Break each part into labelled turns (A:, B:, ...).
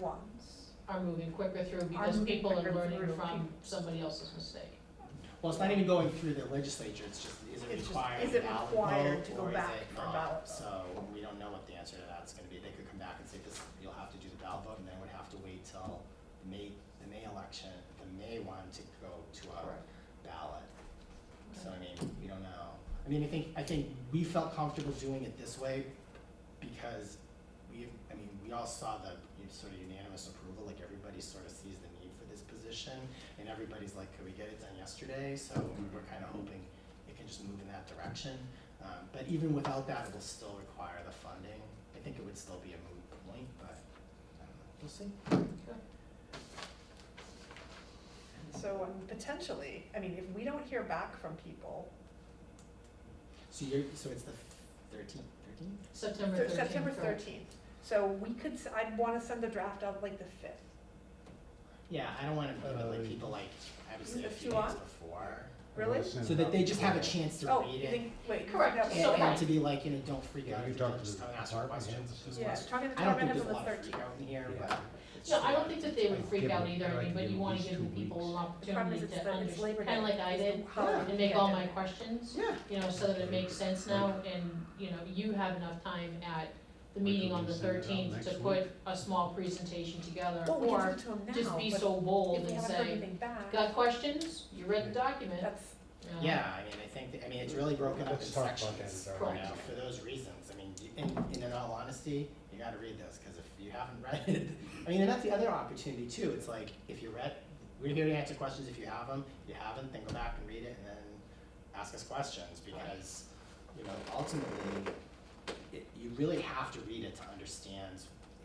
A: ones.
B: are moving quicker through
A: Are
B: because
A: moving
B: people are
A: quicker
B: learning
A: through.
B: from somebody else's mistake.
C: Well, it's not even going through the legislature, it's just, is it
A: It's just-
C: required
A: is it
C: ballot
A: required
C: vote,
A: to go
C: or is
A: back
C: it
A: for
C: not?
A: ballot vote?
C: So we don't know what the answer to that's gonna be. They could come back and say this, you'll have to do the ballot vote and then we'd have to wait till the May, the May election, the May one to go to a
B: Correct.
C: ballot. So I mean, we don't know. I mean, I think, I think we felt comfortable doing it this way because we, I mean, we all saw the you know, sort of unanimous approval, like everybody sort of sees the need for this position. And everybody's like, could we get it done yesterday? So we were kind of hoping it can just move in that direction. Um, but even without that, it will still require the funding. I think it would still be a moot point, but I don't know, we'll see.
A: So um, potentially, I mean, if we don't hear back from people,
C: So you're, so it's the thirteenth, thirteenth?
B: September
A: Thir-
B: thirteenth.
A: September thirteenth, so we could, s- I'd wanna send the draft out like the fifth.
C: Yeah, I don't wanna put like
D: Uh,
C: people like, I would say a
A: If
C: few
A: you
C: days
A: want.
C: before.
A: Really?
C: So that they just have a chance to
A: Oh,
C: read
A: you
C: it.
A: think, wait.
B: Correct,
A: no,
C: and-
B: so-
C: And to be like, you know, don't freak
D: Yeah,
C: out,
D: you
C: if they
D: talk
C: don't-
D: to
C: just
D: the
C: don't ask your
D: department
C: questions.
D: heads.
C: Just
A: Yeah,
C: ask-
A: talking to the
C: I don't
A: department
C: think
A: heads
C: there's
A: on
C: a
A: the
C: lot of
A: thirteenth.
C: freak out in here,
D: Yeah.
C: but. it's
B: No,
C: just
B: I don't
C: like-
B: think that they would
D: I'd
B: freak
D: give
B: out
D: it-
B: either,
D: I'd
B: I mean,
D: give
B: but
D: it
B: you
D: at
B: wanna
D: least
B: give the
D: two
B: people an
D: weeks.
A: The problem is it's
B: opportunity to
A: the- it's
B: understand,
A: Labor
B: kinda
A: Day.
B: like I
A: It's
B: did,
A: the holiday
B: and make all my
A: weekend.
B: questions,
C: Yeah,
B: you know, so that it makes sense now, and, you know, you have enough time at the
D: Like,
B: meeting
D: we
B: on the
D: can send it out
B: thirteenth to
D: next
B: put a small presentation together,
A: Well, we can
B: or
A: send it to them now,
B: just be
A: but
B: so bold
A: if we
B: and
A: haven't heard
B: say,
A: anything back,
B: got questions, you read the document,
A: that's,
B: you know.
C: yeah, I mean, I think, that- I mean, it's really broken up in
D: Let's talk about that
C: sections,
D: at
C: you
D: our
B: Correct.
C: know, for those reasons, I mean, you- and, and in all honesty, you gotta read this, cause if you haven't read it, I mean, and that's the other opportunity too, it's like, if you read, we're here to answer questions if you have them, if you haven't, then go back and read it and then ask us questions, because, you know, ultimately, it, you really have to read it to understand,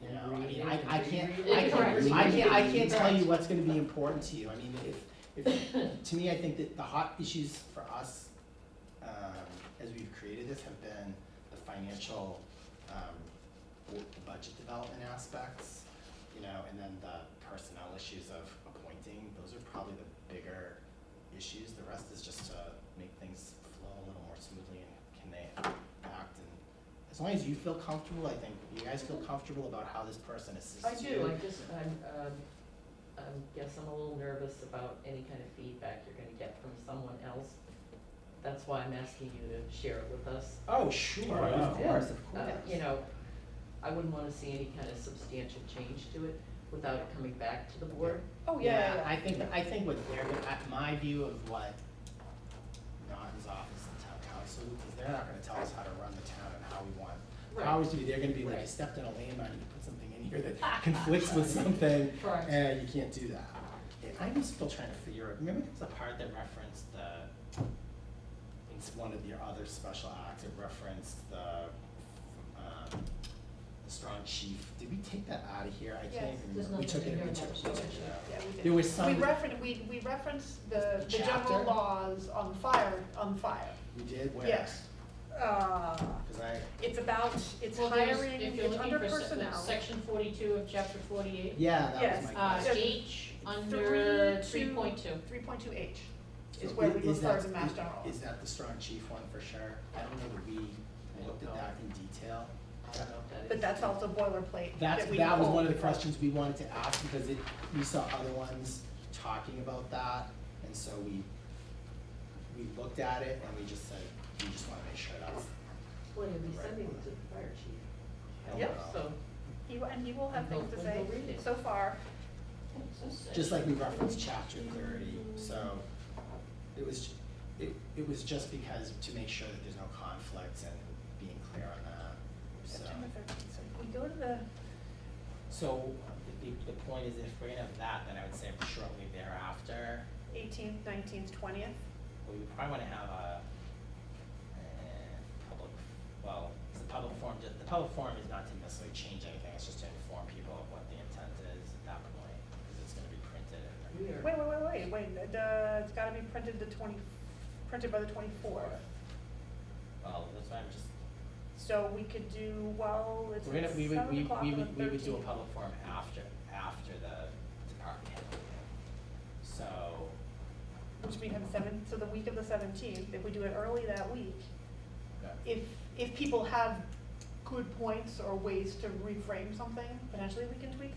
C: you know, I mean, I, I can't, I
B: Correct.
C: can't, I can't, I can't tell you what's gonna be important to you, I mean, if, if, to me, I think that the hot issues for us, um, as we've created this, have been the financial, um, w- the budget development aspects, you know, and then the personnel issues of appointing, those are probably the bigger issues, the rest is just to make things flow a little more smoothly and can they act and as long as you feel comfortable, I think, you guys feel comfortable about how this person
E: I
C: assists you.
E: do, I just, I'm, um, I guess I'm a little nervous about any kind of feedback you're gonna get from someone else. That's why I'm asking you to share it with us.
C: Oh, sure,
D: Oh,
C: of
D: yeah.
C: course, of
E: Uh,
C: course.
E: You know, I wouldn't wanna see any kind of substantial change to it without it coming back to the board.
A: oh, yeah, yeah, yeah.
C: I think, I think what they're, gonna- I- my view of what Norton's office and town council, because they're not gonna tell us how to run the town and how we want.
E: Right.
C: Powers to be, they're gonna be like, you
E: Right.
C: stepped in a lane, I need to put something in here that conflicts with something,
B: Correct.
C: and you can't do that. And I'm still trying to figure out, remember there's a part that referenced the It's one of your other special acts, it referenced the, um, the strong chief, did we take that out of here? I can't
A: Yes.
C: even
B: There's
C: remember, we
B: nothing
C: took
B: in
C: it,
B: here
C: we took,
B: about
C: we
B: strong
C: took it
B: chief.
C: out.
A: Yeah, we did.
C: There was
A: We
C: some,
A: referenced, we, we referenced the, the general
C: Chapter?
A: laws on fire, on fire.
C: we did, where?
A: Yes. Uh,
C: Cause I,
A: it's about, it's
B: Well, there's-
A: hiring,
B: if you're
A: it's
B: looking
A: under
B: for se-
A: personnel.
B: section forty-two of chapter forty-eight,
C: yeah, that
A: Yes.
C: was my
B: uh,
C: question.
B: H under
A: Three
B: three
A: to-
B: point two.
A: Three point two H
C: So
A: is where we
C: is
A: refer
C: that-
A: to mass
C: is-
A: general.
C: Is that the strong chief one for sure? I don't know that we looked at that in detail.
E: I don't know if that is.
A: But that's also boilerplate
C: That's,
A: that we
C: that was
A: pulled.
C: one of the questions we wanted to ask because it, we saw other ones talking about that. And so we, we looked at it and we just said, we just wanna make sure that's.
E: Well, you'll be sending it to the fire chief.
C: Yep.
E: So,
A: He, will- and he will have things to say
E: We'll read it.
A: so far.
C: Just like we referenced chapter thirty, so it was, it, it was just because to make sure that there's no conflicts and being clear on that, so.
A: September thirteenth, so if we go to the,
C: So the, the point is if we're gonna have that, then I would say shortly thereafter,
A: eighteenth, nineteenth, twentieth.
C: we would probably wanna have a, uh, public, well, it's the public forum, ju- the public forum is not to necessarily change anything, it's just to inform people of what the intent is at that point, cause it's gonna be printed and everything.
E: we are.
A: Wait, wait, wait, wait, wait, the- the, it's gotta be printed the twenty, printed by the twenty-fourth.
C: Well, that's why I'm just,
A: So we could do, well, it's
C: we're gonna, we would,
A: seven
C: we,
A: o'clock
C: we
A: on the
C: would, we would do a
A: thirteenth.
C: public forum after, after the department head meeting. So,
A: Which we have seven, so the week of the seventeenth, if we do it early that week,
C: yeah.
A: if, if people have good points or ways to reframe something, potentially we can tweak